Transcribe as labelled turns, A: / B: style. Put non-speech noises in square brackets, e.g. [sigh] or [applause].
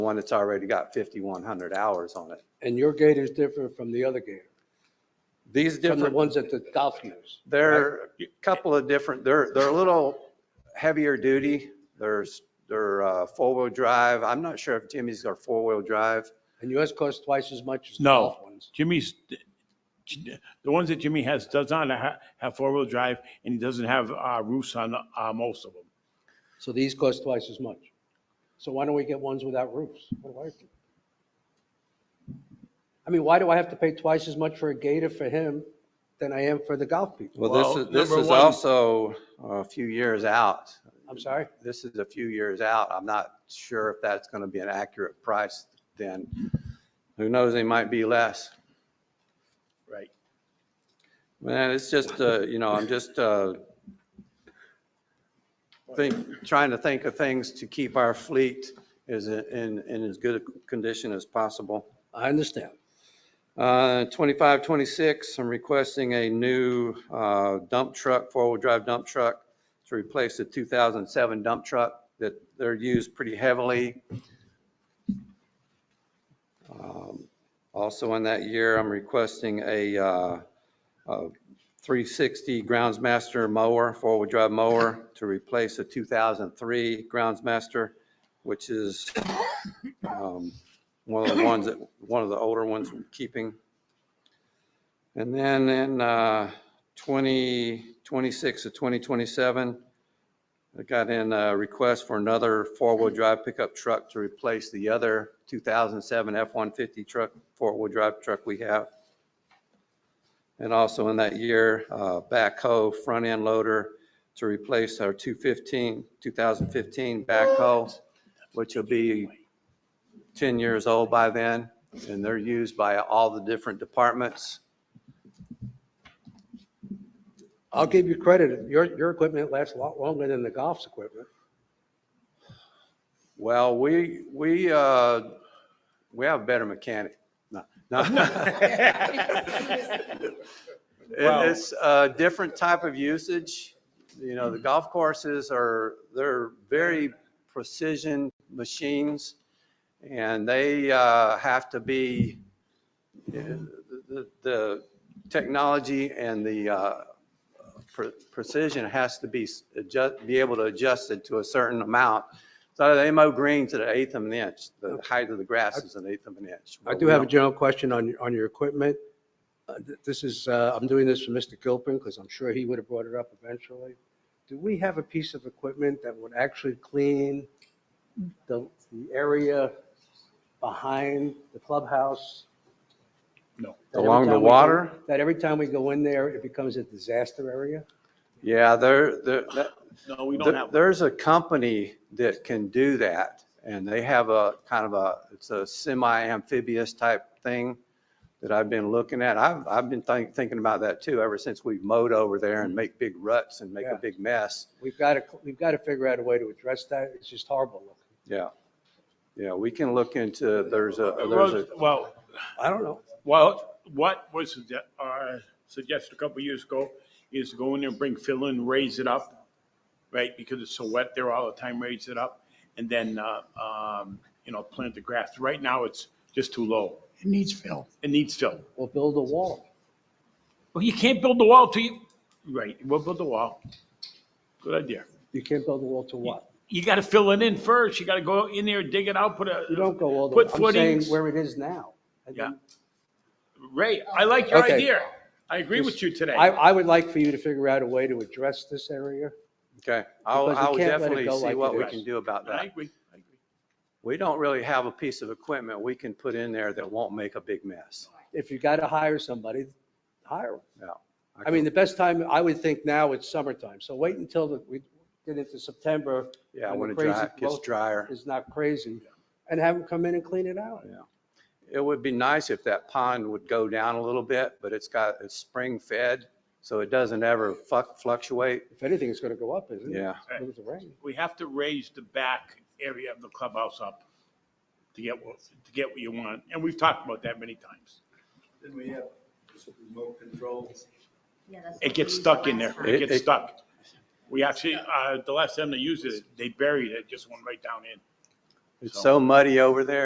A: one that's already got 5,100 hours on it.
B: And your gator's different from the other gator,
A: These
B: from the
A: different
B: ones that the golf use.
A: They're a couple of different, they're, they're a little heavier duty. There's, they're uh, four-wheel drive. I'm not sure if Jimmy's are four-wheel drive.
B: And yours costs twice as much as the
C: No.
B: golf ones.
C: Jimmy's, the ones that Jimmy has does not ha- have four-wheel drive and he doesn't have uh, roofs on uh,
D: [laughs]
C: most of them.
B: So these cost twice as much. So why don't we get ones without roofs? What do I do? I mean, why do I have to pay twice as much for a gator for him than I am for the golf people?
A: Well, this
C: Well,
A: is, this
C: number
A: is
C: one-
A: also a few years out.
B: I'm sorry?
A: This is a few years out. I'm not sure if that's going to be an accurate price then. Who knows, they might be less.
C: Right.
A: Man, it's just, uh, you know, I'm just uh, think, trying to think of things to keep our fleet as in, in as good a condition as possible.
B: I understand.
A: Uh, 25, 26, I'm requesting a new uh, dump truck, four-wheel drive dump truck to replace the 2007 dump truck that they're used pretty heavily. Um, Also in that year, I'm requesting a uh, a 360 Groundsmaster mower, four-wheel drive mower to replace a 2003 Groundsmaster, which is um, one of the ones that, one of the older ones we're keeping. And then in uh, 2026 to 2027, I got in a request for another four-wheel drive pickup truck to replace the other 2007 F-150 truck, four-wheel drive truck we have. And also in that year, uh, backhoe, front-end loader to replace our 215, 2015 backhoe, which will be 10 years old by then, and they're used by all the different departments.
B: I'll give you credit. Your, your equipment lasts a lot longer than the golf's equipment.
A: Well, we, we, uh, we have a better mechanic. No, no.
C: [laughs]
A: It- It's a different type of usage. You know, the golf courses are, they're very precision machines, and they uh, have to be, the- the the technology and the uh, pre- precision has to be, s- adjust be able to adjust it to a certain amount. So they mow green to the eighth of an inch. The height of the grass is an eighth of an inch.
B: I do have a general question on, on your equipment. Uh, th- This is, uh, I'm doing this for Mr. Gilpin because I'm sure he would have brought it up eventually. Do we have a piece of equipment that would actually clean the, the area behind the clubhouse?
C: No.
B: That every
A: Along the
B: time we go-
A: water?
B: That every time we go in there, it becomes a disaster area?
A: Yeah, there, there, that-
C: No, we
A: there- there's a company that can do that. And they have a kind of a, it's a semi-amphibious type thing that I've been looking at. I've, I've been think- thinking about that too, ever since we mowed over there and make big ruts and make
B: Mm-hmm. Yeah.
A: a big mess.
B: We've got to, we've got to figure out a way to address that. It's just horrible looking.
A: Yeah. Yeah, we can look into, there's a, there's a,
C: Well, Well,
B: I don't know.
C: well, what was sugge- uh, suggested a couple years ago is to go in there and bring fill in, raise it up, right? Because it's so wet there all the time, raise it up and then, uh, um, you know, plant the grass. Right now, it's just too low.
D: It needs fill.
C: It needs fill.
B: We'll build a wall.
C: Well, you can't build the wall till you, right, we'll build the wall. Good idea.
B: You can't build a wall to what?
C: You gotta fill it in first. You gotta go in there, dig it out, put a.
B: You don't go all the way.
C: Put
B: I'm saying
C: footings.
B: where it is now. And
C: Yeah.
B: then-
C: Ray, I like your
B: Okay.
C: idea. I agree with you today.
B: I, I would like for you to figure out a way to address this area.
A: okay. I'll,
B: Because we
A: I'll
B: can't let it
A: definitely
B: go
A: see
B: like
A: what
B: it
A: we
C: is.
A: can do about
C: I
A: that.
C: agree. I agree.
A: We don't really have a piece of equipment we can put in there that won't make a big mess.
B: If you got to hire somebody, hire 'em.
A: No.
B: I mean, the best time, I would think now it's summertime. So wait until the- we get into September,
A: Yeah,
B: and the
A: when it
B: crazy
A: dry- gets
B: growth-
A: drier.
B: it's not crazy, and have them come in and clean it out.
A: It would be nice if that pond would go down a little bit, but it's got, it's spring fed, so it doesn't ever fuck fluctuate.
B: If anything, it's going to go up, isn't it?
A: Yeah.
B: With the rain.
C: We have to raise the back area of the clubhouse up to get, what to get what you want. And we've talked about that many times.
E: Then we have this remote control.
F: Yeah, that's
C: It
F: what
C: gets
F: we used
C: stuck
F: the
C: in there.
F: last
C: It
F: time.
A: It- it-
C: gets stuck. We actually, uh, the last time they used it, they buried it, just went right down in.
A: It's so muddy over there.